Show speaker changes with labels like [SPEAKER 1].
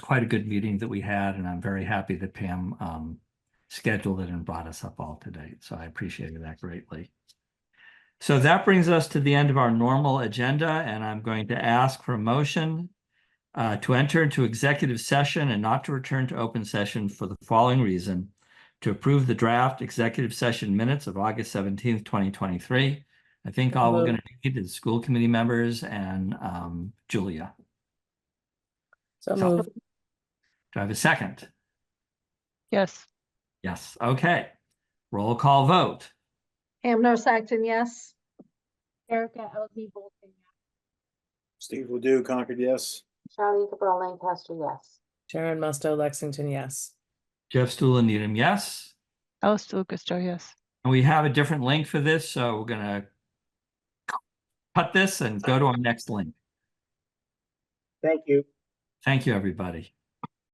[SPEAKER 1] quite a good meeting that we had, and I'm very happy that Pam um scheduled it and brought us up all to date. So I appreciated that greatly. So that brings us to the end of our normal agenda, and I'm going to ask for a motion uh, to enter into executive session and not to return to open session for the following reason: to approve the draft executive session minutes of August seventeenth, twenty twenty-three. I think all we're
[SPEAKER 2] Hello.
[SPEAKER 1] going to need is school committee members and um Julia.
[SPEAKER 2] So
[SPEAKER 1] So-
[SPEAKER 2] moved.
[SPEAKER 1] Do I have a second?
[SPEAKER 3] Yes.
[SPEAKER 1] Yes, okay. Roll call vote.
[SPEAKER 4] Hamner Saxon, yes. Erica LD Bolton,
[SPEAKER 5] Steve Ledoux, Concord, yes.
[SPEAKER 6] Charlie Cabral Lancaster, yes.
[SPEAKER 2] Sharon Musto, Lexington, yes.
[SPEAKER 1] Jeff Stuland Needham, yes.
[SPEAKER 3] Alice DeLucastar, yes.
[SPEAKER 1] And we have a different link for this, so we're gonna cut this and go to our next link.
[SPEAKER 5] Thank you.
[SPEAKER 1] Thank you, everybody.